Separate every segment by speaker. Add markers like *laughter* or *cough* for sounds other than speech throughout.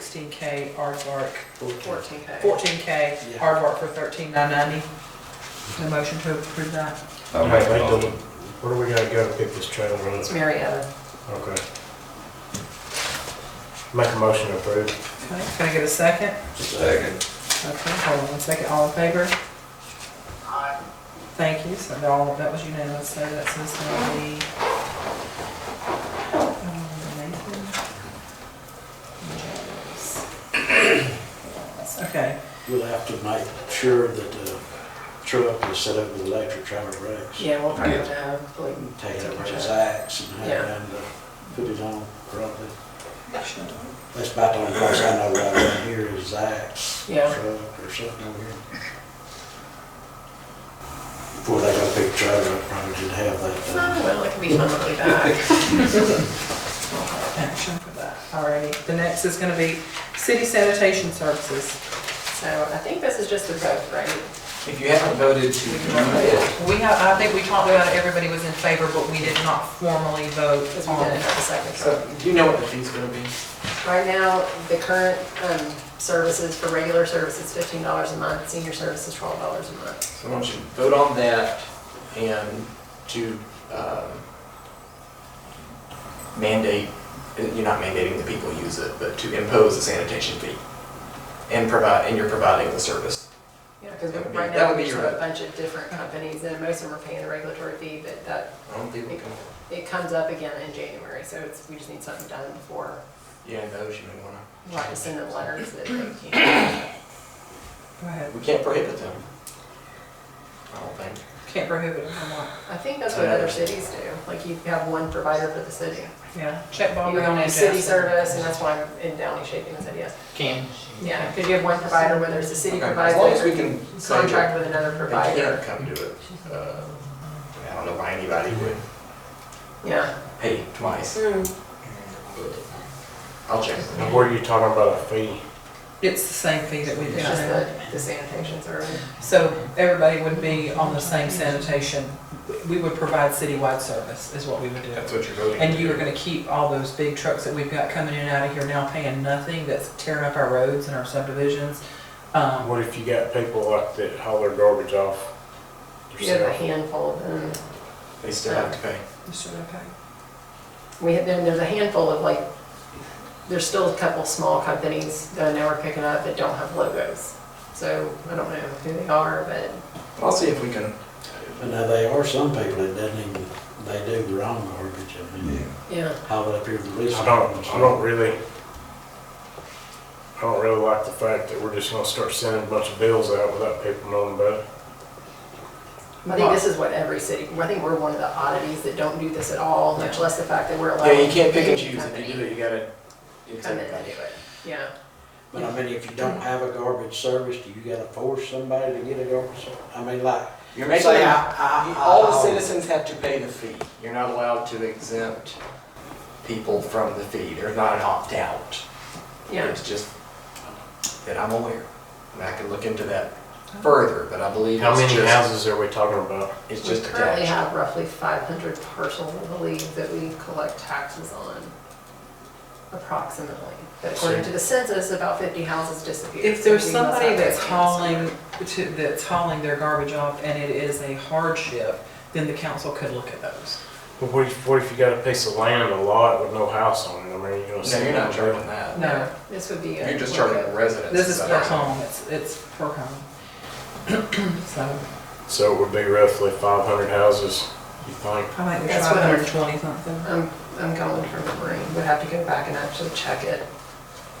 Speaker 1: sixteen K aardvark,
Speaker 2: fourteen K.
Speaker 1: fourteen K
Speaker 3: Yeah.
Speaker 1: aardvark for thirteen nine ninety. A motion to approve that.
Speaker 4: I'll
Speaker 3: Alright,
Speaker 4: make a
Speaker 3: wait,
Speaker 4: motion.
Speaker 3: Where do we gotta go to pick this trailer up?
Speaker 2: It's Marietta.
Speaker 3: Okay. Make a motion to approve.
Speaker 1: Okay, can I get a second?
Speaker 4: Second.
Speaker 1: Okay, hold on one second, all in favor? Aye. Thank you, so that all, that was unanimous, so that's this gonna be. um, Nathan Jones. Okay,
Speaker 5: We'll have to make sure that the truck is set up with electric trailer brakes.
Speaker 2: Yeah, we'll find
Speaker 4: Yeah.
Speaker 2: it out. Like,
Speaker 5: Take it over
Speaker 2: double
Speaker 5: his
Speaker 2: check.
Speaker 5: axe and
Speaker 2: Yeah.
Speaker 5: have him to put it on properly. That's about the only place I know right around here is Zach's
Speaker 2: Yeah.
Speaker 5: truck or something over here. Before they got a big trailer, I probably should have that.
Speaker 2: Oh, Well, it could be monthly back.
Speaker 1: action for that, alrighty, the next is gonna be city sanitation services.
Speaker 2: So I think this is just the vote, right?
Speaker 6: If you haven't voted to do it,
Speaker 1: We have, I think we talked about it, everybody was in favor, but we did not formally vote
Speaker 2: Because we
Speaker 1: on
Speaker 2: didn't
Speaker 1: it.
Speaker 2: have a second truck.
Speaker 6: so do you know what the fee's gonna be?
Speaker 2: Right now, the current um, services for regular services, fifteen dollars a month, senior services, twelve dollars a month.
Speaker 6: So I want you to vote on that and to um, mandate, you're not mandating the people use it, but to impose a sanitation fee and provide, and you're providing the service.
Speaker 2: Yeah, because
Speaker 6: That would be-
Speaker 2: right
Speaker 6: that
Speaker 2: now,
Speaker 6: would
Speaker 2: we
Speaker 6: be
Speaker 2: just
Speaker 6: your
Speaker 2: have a
Speaker 6: vote.
Speaker 2: bunch of different companies, and most of them are paying a regulatory fee, but that,
Speaker 6: I don't think we can,
Speaker 2: it comes up again in January, so it's, we just need something done before,
Speaker 6: yeah, those you may wanna.
Speaker 2: like, send them letters that they
Speaker 6: *coughs*
Speaker 2: can't.
Speaker 1: Go ahead,
Speaker 6: We can't prohibit them. I don't think.
Speaker 1: can't prohibit it from what,
Speaker 2: I think that's what other cities do, like, you have one provider for the city.
Speaker 1: yeah, check Bobby
Speaker 2: You
Speaker 1: on
Speaker 2: only
Speaker 1: that.
Speaker 2: city
Speaker 1: Jackson.
Speaker 2: service, and that's why I'm in Downey shaking his head yes.
Speaker 6: Can.
Speaker 2: Yeah, because you have one provider, whether it's the city
Speaker 6: Okay, as
Speaker 2: provider,
Speaker 6: long as we
Speaker 2: or
Speaker 6: can
Speaker 2: you
Speaker 6: say that
Speaker 2: contract with another
Speaker 6: They
Speaker 2: provider.
Speaker 6: can't come do it. Uh, I don't know why anybody would
Speaker 2: Yeah.
Speaker 6: pay twice.
Speaker 2: Hmm.
Speaker 6: I'll check.
Speaker 3: And where are you talking about a fee?
Speaker 1: It's the same fee that we did.
Speaker 2: It's just the, the sanitation service.
Speaker 1: So everybody would be on the same sanitation, we would provide citywide service is what we would do.
Speaker 6: That's what you're voting.
Speaker 1: And
Speaker 6: to
Speaker 1: you
Speaker 6: do.
Speaker 1: are gonna keep all those big trucks that we've got coming in and out of here now paying nothing, that's tearing up our roads and our subdivisions. Um,
Speaker 3: What if you got people like that haul their garbage off?
Speaker 2: You have a
Speaker 3: yourself?
Speaker 2: handful of them.
Speaker 6: They still have to pay.
Speaker 2: We have, then there's a handful of like, there's still a couple small companies that I know are picking up that don't have logos. So I don't know who they are, but
Speaker 6: I'll see if we can.
Speaker 5: But now, there are some people that doesn't even, they do their own garbage. I mean,
Speaker 2: yeah.
Speaker 5: haul it up here to the police.
Speaker 3: I don't, I
Speaker 5: department.
Speaker 3: don't really, I don't really like the fact that we're just gonna start sending a bunch of bills out without people knowing about it.
Speaker 2: I think this is what every city, I think we're one of the oddities that don't do this at all, much less the fact that we're allowed.
Speaker 6: Yeah, you can't pick and choose. If you do it, you gotta. It's
Speaker 2: Come in and do
Speaker 6: everybody.
Speaker 2: it, yeah.
Speaker 5: But I mean, if you don't have a garbage service, do you gotta force somebody to get a garbage service? I mean, like,
Speaker 6: You're making,
Speaker 5: say, I,
Speaker 6: them-
Speaker 5: I,
Speaker 6: you-
Speaker 5: I.
Speaker 6: all the
Speaker 5: I'll-
Speaker 6: citizens have to pay the fee. You're not allowed to exempt people from the fee. They're not an opt-out.
Speaker 2: Yeah,
Speaker 6: It's just that I'm aware. And I can look into that further, but I believe
Speaker 3: How
Speaker 6: it's
Speaker 3: many
Speaker 6: just,
Speaker 3: houses are we talking about?
Speaker 6: it's
Speaker 2: we
Speaker 6: just
Speaker 2: currently
Speaker 6: attached.
Speaker 2: have roughly five hundred parcels, I believe, that we collect taxes on, approximately. But According to the census, about fifty houses disappeared.
Speaker 1: If
Speaker 2: so
Speaker 1: there's
Speaker 2: we must
Speaker 1: somebody
Speaker 2: have
Speaker 1: that's
Speaker 2: those hands
Speaker 1: hauling,
Speaker 2: somewhere.
Speaker 1: to- that's hauling their garbage off and it is a hardship, then the council could look at those.
Speaker 3: But what if, what if you got a piece of land, a lot with no house on it? I mean, you're gonna
Speaker 6: No,
Speaker 3: send.
Speaker 6: you're not
Speaker 3: them-
Speaker 6: charging that.
Speaker 1: No,
Speaker 2: This would be. a-
Speaker 6: You're just charging the residents.
Speaker 1: this is
Speaker 6: that
Speaker 1: per
Speaker 6: are-
Speaker 1: home, it's, it's per home. *clears throat* So,
Speaker 3: So it would be roughly five hundred houses, you think?
Speaker 1: I think there's
Speaker 2: That's
Speaker 1: five
Speaker 2: what I'm-
Speaker 1: hundred and twenty something.
Speaker 2: I'm, I'm going from memory, would have to go back and actually check it.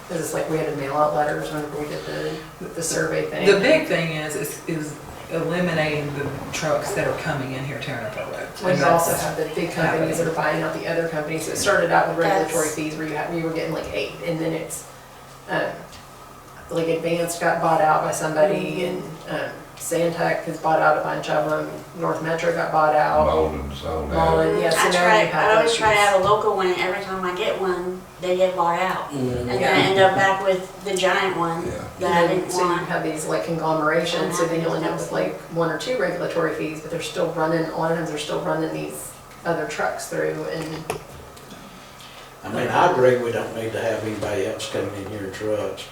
Speaker 2: Cause it's like we had to mail out letters whenever we did the, the survey thing.
Speaker 1: The big thing is, is, is eliminating the trucks that are coming in here tearing up our roads.
Speaker 2: We also have the big companies that are buying out the other companies. So It started out with regulatory
Speaker 7: That's-
Speaker 2: fees where you had, you were getting like eight, and then it's, um, like Advanced got bought out by somebody, and,
Speaker 7: Mm-hmm.
Speaker 2: um, Sandtech has bought out a bunch of them, North Metro got bought out.
Speaker 4: Bolden sold out.
Speaker 2: Mullen, yeah, so
Speaker 7: I
Speaker 2: now
Speaker 7: try,
Speaker 2: you
Speaker 7: I
Speaker 2: have
Speaker 7: always
Speaker 2: issues.
Speaker 7: try to have a local one, and every time I get one, they get bought out. And then
Speaker 2: Yeah.
Speaker 7: I end up back with the giant one
Speaker 4: Yeah.
Speaker 7: that I
Speaker 2: And
Speaker 7: didn't
Speaker 2: So you
Speaker 7: want.
Speaker 2: have these like conglomerations, so then you'll end up with like one or two regulatory fees, but they're still running, a lot of them, they're still running these other trucks through, and
Speaker 5: I mean, I agree we don't need to have anybody else coming in here in trucks,